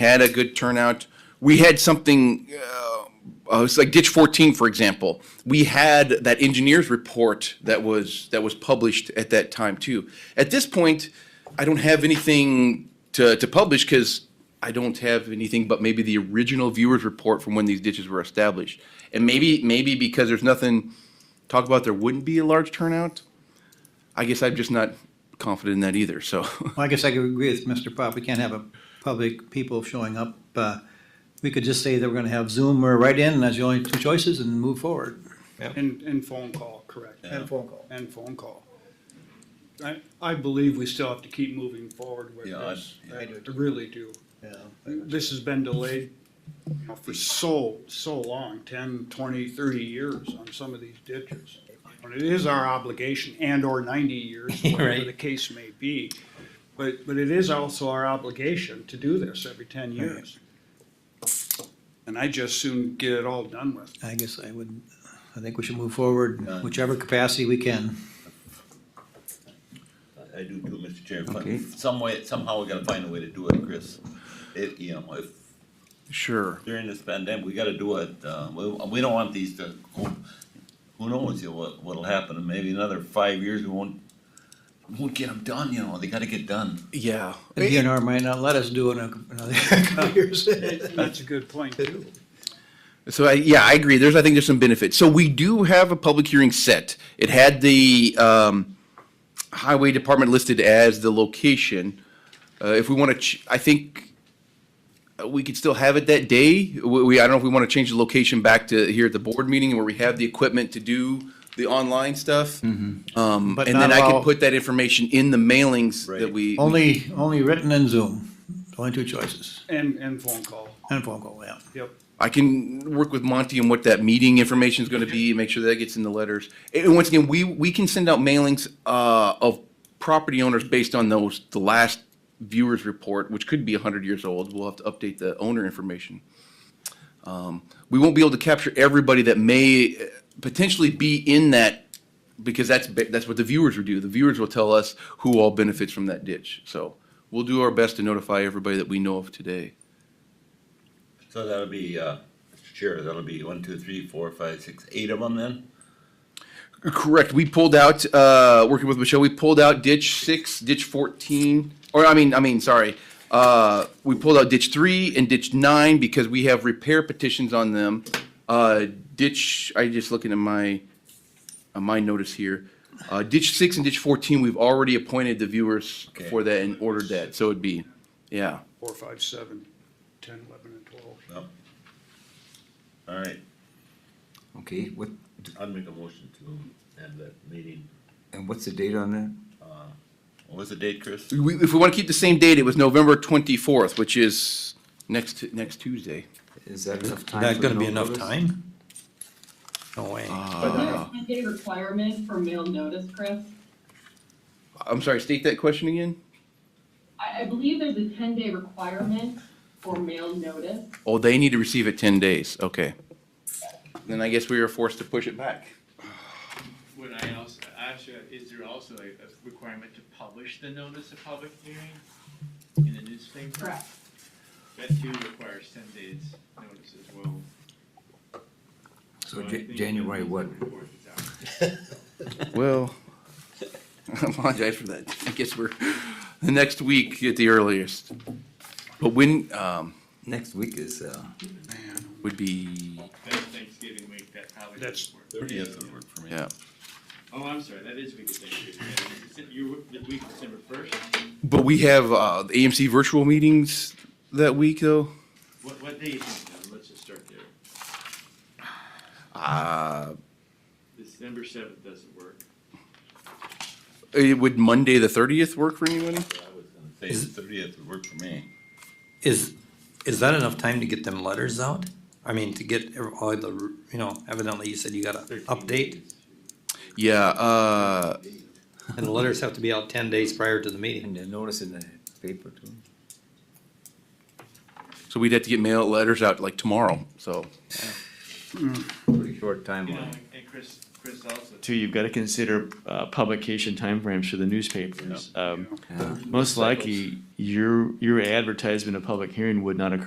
had a good turnout. We had something, uh, uh, it's like ditch fourteen, for example. We had that engineer's report that was, that was published at that time too. At this point, I don't have anything to, to publish because I don't have anything but maybe the original viewer's report from when these ditches were established. And maybe, maybe because there's nothing, talk about there wouldn't be a large turnout. I guess I'm just not confident in that either, so. Well, I guess I could agree with Mr. Pop, we can't have a public people showing up. Uh, We could just say that we're gonna have Zoom or write-in, and that's the only two choices, and move forward. And, and phone call, correct. And phone call. And phone call. I, I believe we still have to keep moving forward with Yeah, I- this. yeah. I do too. really do. This has been delayed you know, for so, so long, 10, 20, 30 years on some of these ditches. And it is our obligation and/or ninety years, whatever Right. the case may be. But, but it is also our obligation to do this every ten years. And I just soon get it all done with. I guess I would, I think we should move forward in whichever capacity we can. I do too, Mr. Chair, but Okay. some way, somehow we gotta find a way to do it, Chris. It, you know, if Sure. during this pandemic, we gotta do it, uh, we, we don't want these to, go- who knows, you know, what, what'll happen, and maybe another five years, we won't, we won't get them done, you know, they gotta get done. Yeah. The DNR might not let us do it in a- another couple of years. Mm. That's a good point too. So I, yeah, I agree. There's, I think there's some benefit. So we do have a public hearing set. It had the um, highway department listed as the location. Uh, if we want to, ch- I think uh, we could still have it that day. We, we I don't know if we want to change the location back to here at the board meeting where we have the equipment to do the online stuff. Um, But and then not I can allow- put that information in the mailings that Right. we Only, only written and Zoom, only two choices, And, and phone call, and phone call, yeah. yep. I can work with Monty on what that meeting information is going to be, make sure that gets in the letters. And once again, we, we can send out mailings uh, of property owners based on those, the last viewer's report, which could be 100 years old. We'll have to update the owner information. Um, We won't be able to capture everybody that may uh, potentially be in that, because that's, ba- that's what the viewers would do. The viewers will tell us who all benefits from that ditch. So we'll do our best to notify everybody that we know of today. So that'll be, uh, Mr. Chair, that'll be one, two, three, four, five, six, eight of them then? Correct. We pulled out, uh, working with Michelle, we pulled out ditch six, ditch fourteen, or I mean, I mean, sorry. Uh, we pulled out ditch three and ditch nine because we have repair petitions on them. Uh, ditch, I just looking at my, on my notice here. Uh, ditch six and ditch fourteen, we've already appointed the viewers Okay. for that and ordered that, so it'd be, yeah. Four, five, seven, ten, eleven, and twelve. No. All right, Okay, what, I'll make a motion to end that meeting. and what's the date on that? What was the date, Chris? We, if we wanna keep the same date, it was November twenty-fourth, which is next, next Tuesday. Is that enough time? That for gonna be no enough notice? time? No way. Uh, Is there a requirement for mail notice, Chris? I'm sorry, state that question again? I, I believe there's a ten-day requirement for mail notice. Oh, they need to receive it ten days, okay. Then I guess we were forced to push it back. Would I also ask you, is there also a, a requirement to publish the notice of public hearing in the newspaper? Correct. That too requires ten days notice as well. So I Ja- think that January needs what? to report it out. Well. I apologize for that. I guess we're, the next week at the earliest. But when, um, Next week is, uh, would be, That's Thanksgiving week, that probably. That's- doesn't work. Thirtieth would work for me. yeah. Oh, I'm sorry, that is week of Thanksgiving, yeah, it's- you, the week of December first, But we have, uh, the AMC virtual meetings that week though. what, what day is it, now? let's just start there, Uh, December seventh doesn't work. it Uh, would Monday, the thirtieth work for anybody? I was gonna say the thirtieth would work for me. Is, is that enough time to get them letters out? I mean, to get ev- all the, you know, evidently you said you gotta update, Yeah, uh, and the letters have to be out ten days prior to the meeting. and the notice in the paper too? so we'd have to get mail letters out like tomorrow, so. Pretty short You know, timeline. and- and Chris, Chris also. Too, you've got to consider uh, publication timeframes for the newspapers. Um, Yeah. Most likely, your, your advertisement of public hearing would not occur